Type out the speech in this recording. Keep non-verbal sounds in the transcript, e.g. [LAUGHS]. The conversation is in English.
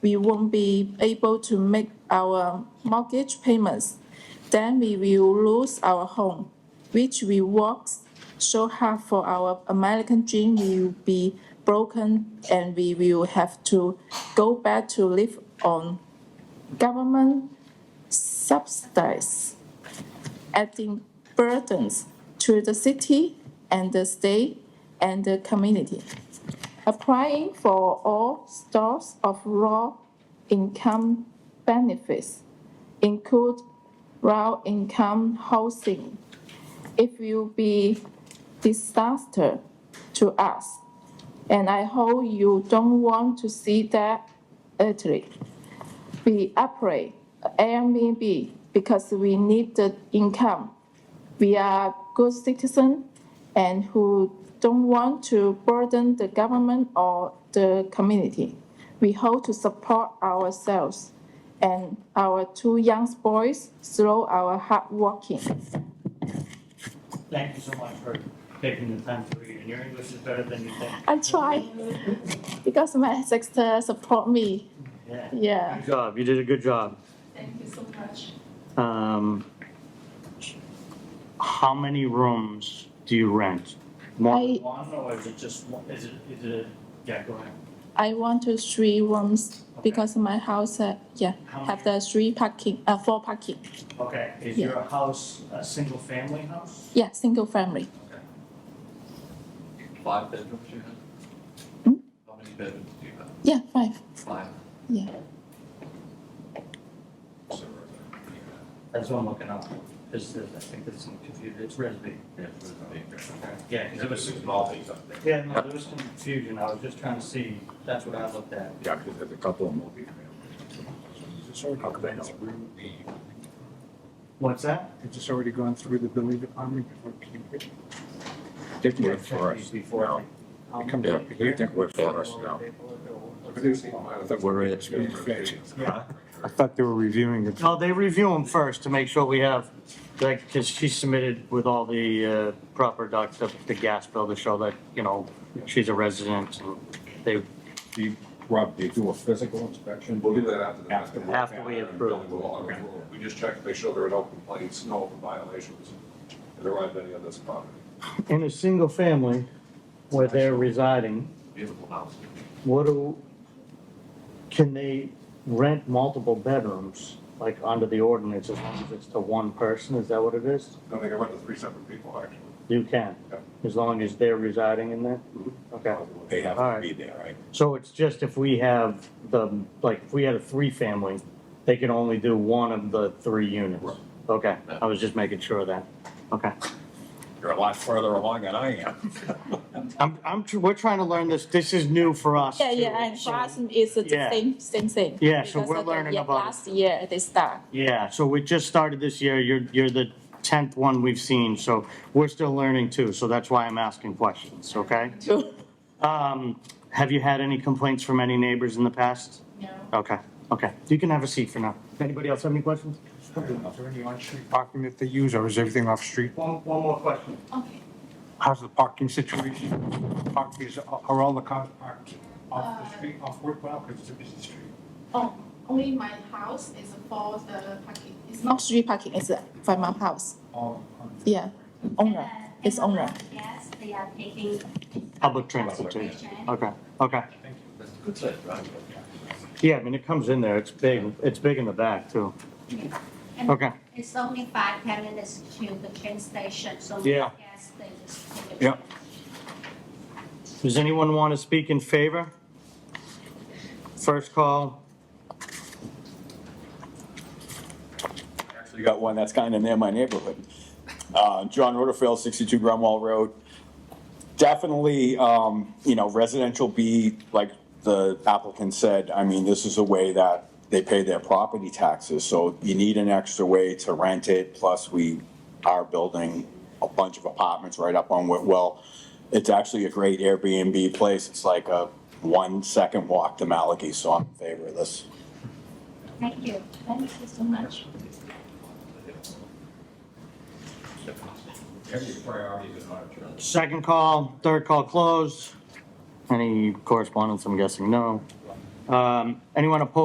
we won't be able to make our mortgage payments. Then we will lose our home, which we worked so hard for our American dream will be broken and we will have to go back to live on government subsidies, adding burdens to the city and the state and the community applying for all sorts of raw income benefits, include raw income housing. It will be disaster to us, and I hope you don't want to see that early. We operate Airbnb because we need the income we are good citizens and who don't want to burden the government or the community. We hope to support ourselves and our two young boys through our hard working. Thank you so much for taking the time to read, and your English is better than you think. I try because my sister support me. Yeah. Yeah. Good job, you did a good job. Thank you so much. Um, how many rooms do you rent? More I- than one, or is it just, one- is it, is it, yeah, go ahead. I want to three rooms because my house, uh, yeah, How have many- the three parking, uh, four parking. Okay, is Yeah. your house a single-family house? Yeah, single family. Five bedrooms you Hmm? have? How many bedrooms do you have? Yeah, five. Five? Yeah. So, That's what I'm looking up, is that, I think there's some confusion, it's Risby. yeah, it's a big area. Yeah, 'cause There was some small things up there. Yeah, no, there was some confusion, I was just trying to see, that's what I looked at. Yeah, because there's a couple of movie families. How could I help? What's that? I've just already gone through the building department before it came here. Didn't Yeah, work for us. Before. No. It comes Yeah, up you here. didn't work for us, no. I thought we're in. Yeah. I thought they were reviewing it. [LAUGHS] No, they review them first to make sure we have, like, because she submitted with all the uh, proper docs, the, the gas bill to show that, you know, she's a resident. and They, Do you, Rob, do you do a physical inspection? We'll do that after the. After. After we approve. Okay. We just check to make sure there are no complaints, no violations, and there aren't any on this property. in a single family where they're residing, Beautiful house. what do, can they rent multiple bedrooms, like, under the ordinance, as long as it's to one person? Is that what it is? I think I went to three separate people, actually. You can, as long as they're residing in there? Okay. They have All to right. be there, right? So it's just if we have the, like, if we had a three-family, they can only do one of the three units? Okay, I was just making sure of that. Okay. You're a lot further along than I am. I'm, I'm, tr- we're trying to learn this, this is new for us. Yeah, too, yeah, and so- for us, it's the Yeah. same, same thing. Yeah, so Because we're of the- learning yeah, about it. Last year, they start. Yeah, so we just started this year, you're, you're the tenth one we've seen, so we're still learning too, so that's why I'm asking questions, okay? True. Um, have you had any complaints from any neighbors in the past? No. Okay, okay, you can have a seat for now. Anybody else have any questions? Is there any on-street parking that they use, or is everything off-street? One, one more question. Okay. How's the parking situation? Park is, are all the cars parked off the street, off Woodbrook, because it's a busy street? Oh, only my house is for the parking. [LAUGHS] It's Not not. street parking, it's uh, by my house. All on the- Yeah, owner, it's owner. Yes, they are taking. Public transportation. Okay, okay. That's a good sized driveway. Yeah, I mean, it comes in there, it's big, it's big in the back too. And Okay, It's only five, ten minutes to the train station, so. Yeah. Yes, they just. Yeah. does anyone want to speak in favor? First call, Actually got one that's kind of near my neighborhood. Uh, John Rutherford, 62 Grumwall Road. Definitely, um, you know, residential B, like the applicant said, I mean, this is a way that they pay their property taxes. So you need an extra way to rent it, plus we are building a bunch of apartments right up on Whitwell. It's actually a great Airbnb place. It's like a one-second walk to Malachi, so I'm in favor of this. Thank you. Thank you so much. Every priority is not a second call, third call closed. Any correspondence, I'm guessing no. Uh, Um, anyone opposed